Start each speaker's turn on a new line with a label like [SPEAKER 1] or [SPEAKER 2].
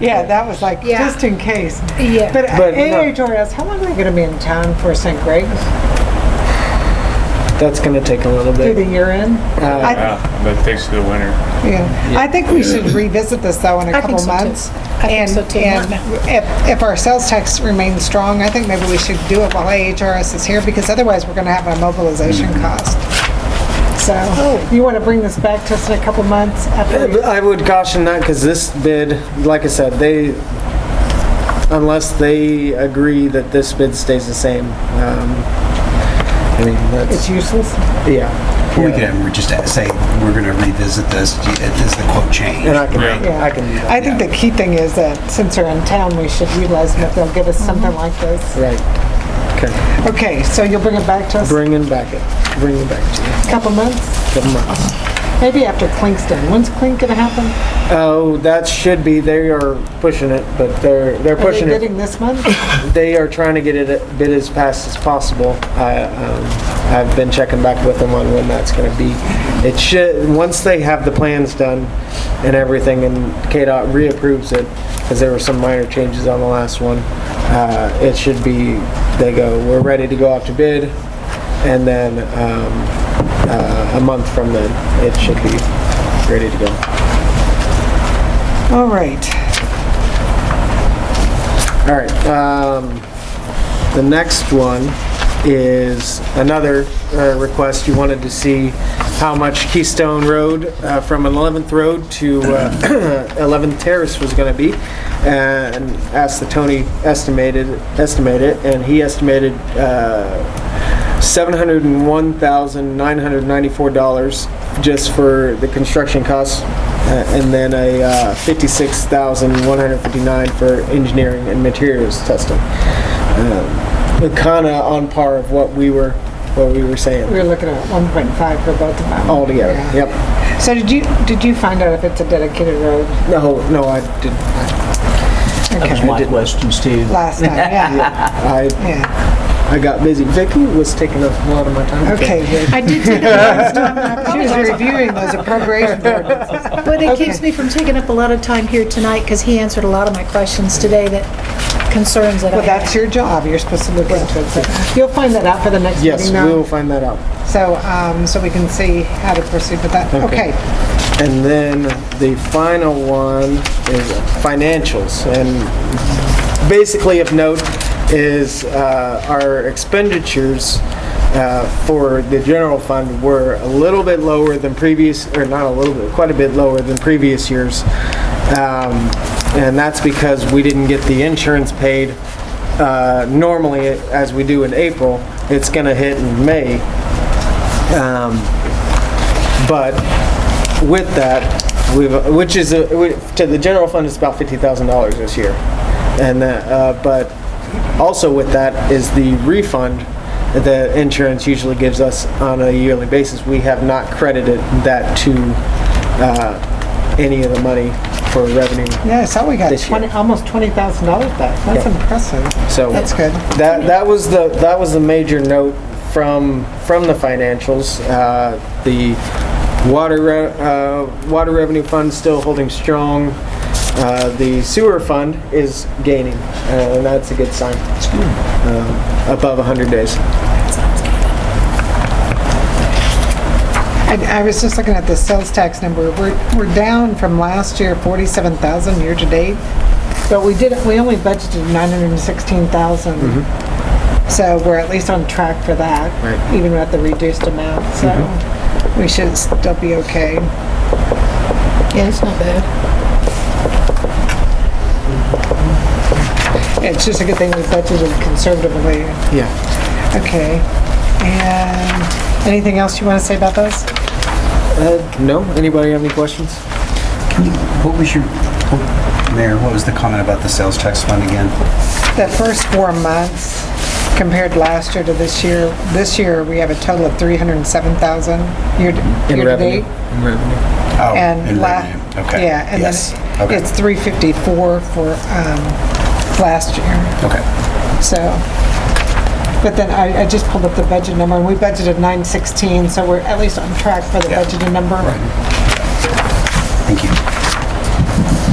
[SPEAKER 1] Yeah, that was like,
[SPEAKER 2] Yeah.
[SPEAKER 1] just in case.
[SPEAKER 2] Yeah.
[SPEAKER 1] But
[SPEAKER 3] But no.
[SPEAKER 1] AHRS, how long are they going to be in town for St. Greg's?
[SPEAKER 3] That's gonna take a little
[SPEAKER 1] Through the
[SPEAKER 3] bit.
[SPEAKER 1] year end?
[SPEAKER 3] Uh,
[SPEAKER 1] I-
[SPEAKER 4] Yeah, but thanks to the winter.
[SPEAKER 1] Yeah, I think we should revisit this though in a
[SPEAKER 2] I think
[SPEAKER 1] couple
[SPEAKER 2] so, too.
[SPEAKER 1] months.
[SPEAKER 2] I think so, too.
[SPEAKER 1] And, and if, if our sales tax remains strong, I think maybe we should do it while AHRS is here because otherwise we're gonna have a mobilization
[SPEAKER 3] Mm-hmm.
[SPEAKER 1] cost. So,
[SPEAKER 2] Oh.
[SPEAKER 1] you wanna bring this back to us in a couple months after?
[SPEAKER 3] I would caution that because this bid, like I said, they, unless they agree that this bid stays the same, um, I mean,
[SPEAKER 1] It's
[SPEAKER 3] that's,
[SPEAKER 1] useless?
[SPEAKER 3] yeah.
[SPEAKER 5] We could have, just say, we're going to revisit this, is the quote change?
[SPEAKER 3] And I can,
[SPEAKER 4] Right.
[SPEAKER 3] I can do that,
[SPEAKER 1] I think the key thing is that since they're in town, we should utilize them if they'll give us
[SPEAKER 2] Mm-hmm.
[SPEAKER 1] something like this.
[SPEAKER 3] right. Okay,
[SPEAKER 1] Okay, so you'll bring it back to us in
[SPEAKER 3] bringing back it, bringing back to
[SPEAKER 1] a couple months?
[SPEAKER 3] you. Come on.
[SPEAKER 1] Maybe after Clink's done. When's Clink gonna happen?
[SPEAKER 3] Oh, that should be, they are pushing it, but they're, they're
[SPEAKER 1] Are they
[SPEAKER 3] pushing it.
[SPEAKER 1] bidding this month?
[SPEAKER 3] They are trying to get it a bid as fast as possible. I, um, I've been checking back with them on when that's gonna be. It should, once they have the plans done and everything and KDOT reapproves it, because there were some minor changes on the last one, uh, it should be, they go, we're ready to go out to bid, and then, um, uh, a month from then, it should be ready to go.
[SPEAKER 1] All right.
[SPEAKER 3] All right, um, the next one is another, uh, request. You wanted to see how much Keystone Road, uh, from 11th Road to, uh, 11th Terrace was gonna be. And asked the Tony estimated, estimate it, and he estimated, uh, $701,994 just for the construction costs, uh, and then a uh, $56,159 for engineering and materials testing. Kind of on par of what we were, what we were
[SPEAKER 1] We
[SPEAKER 3] saying
[SPEAKER 1] were looking at 1.5 for both of them.
[SPEAKER 3] altogether. Yep.
[SPEAKER 1] So did you, did you find out if it's a dedicated road
[SPEAKER 3] No, no, I did,
[SPEAKER 6] That was my question, Steve.
[SPEAKER 1] last time? Yeah,
[SPEAKER 3] I,
[SPEAKER 1] yeah.
[SPEAKER 3] I got busy. Vicky was taking up a lot of my time.
[SPEAKER 1] Okay, good.
[SPEAKER 2] I did take it last time, and I
[SPEAKER 1] She was
[SPEAKER 2] apologize.
[SPEAKER 1] reviewing those appropriation ordinances.
[SPEAKER 2] But it keeps
[SPEAKER 1] Okay.
[SPEAKER 2] me from taking up a lot of time here tonight, because he answered a lot of my questions today that concerns that I
[SPEAKER 1] Well,
[SPEAKER 2] had.
[SPEAKER 1] that's your job. You're supposed to look into it. So You'll find that out for the next
[SPEAKER 3] Yes,
[SPEAKER 1] meeting
[SPEAKER 3] we will
[SPEAKER 1] now.
[SPEAKER 3] find that out.
[SPEAKER 1] So, um, so we can see how to proceed with that.
[SPEAKER 3] Okay.
[SPEAKER 1] Okay.
[SPEAKER 3] And then the final one is financials. And basically of note is uh, our expenditures uh, for the general fund were a little bit lower than previous, or not a little bit, quite a bit lower than previous years. Um, And that's because we didn't get the insurance paid uh, normally as we do in April. It's going to hit in May. Um, But with that, we've, which is, a- we- to the general fund, it's about fifty thousand dollars this year. And, that, uh, but also with that is the refund that the insurance usually gives us on a yearly basis. We have not credited that to, uh, any of the money for revenue.
[SPEAKER 1] Yeah, so we got
[SPEAKER 3] This year.
[SPEAKER 1] 20, almost $20,000 back. That's
[SPEAKER 3] Yeah.
[SPEAKER 1] impressive.
[SPEAKER 3] So.
[SPEAKER 1] That's good.
[SPEAKER 3] That, that was the, that was the major note from, from the financials. Uh, The water, re- uh, water revenue fund still holding strong. Uh, The sewer fund is gaining, uh, and that's a good sign. Uh, Above 100 days.
[SPEAKER 1] I, I was just looking at the sales tax number. We're, we're down from last year, forty-seven thousand year-to-date. But we did, we only budgeted nine hundred and sixteen thousand. So we're at least on track for that.
[SPEAKER 3] Right.
[SPEAKER 1] Even at the reduced amount, so we should still be okay.
[SPEAKER 2] Yeah, it's not bad.
[SPEAKER 1] It's just a good thing we budgeted conservatively.
[SPEAKER 3] Yeah.
[SPEAKER 1] Okay. And anything else you want to say about those?
[SPEAKER 3] Uh, No, anybody have any questions?
[SPEAKER 5] Can you- What was your, what- Mayor, what was the comment about the sales tax fund again?
[SPEAKER 1] The first four months compared last year to this year, this year, we have a total of 307,000 year to
[SPEAKER 3] In
[SPEAKER 1] year to
[SPEAKER 3] revenue.
[SPEAKER 1] date.
[SPEAKER 5] Oh,
[SPEAKER 1] And
[SPEAKER 5] in
[SPEAKER 1] la-
[SPEAKER 5] revenue. Okay.
[SPEAKER 1] Yeah, and then
[SPEAKER 5] Yes. Okay.
[SPEAKER 1] it's 354 for um, last year,
[SPEAKER 5] Okay.
[SPEAKER 1] so. But then I I just pulled up the budget number, and we budgeted 916, so we're at least on track for the
[SPEAKER 5] Yeah.
[SPEAKER 1] budgeted number.
[SPEAKER 5] Thank you.